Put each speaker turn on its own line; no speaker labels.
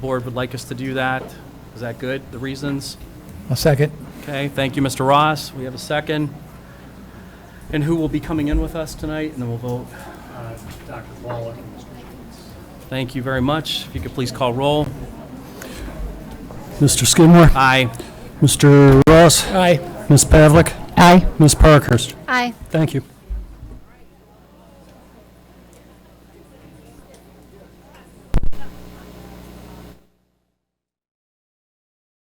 Board would like us to do that. Is that good, the reasons?
I'll second.
Okay, thank you, Mr. Ross. We have a second. And who will be coming in with us tonight, and then we'll vote.
Uh, Dr. Wallach and Mr. Schultz.
Thank you very much. If you could please call roll.
Mr. Skidmore,
Aye.
Mr. Ross,
Aye.
Ms. Pavlik,
Aye.
Ms. Parkhurst.
Aye.
Thank you.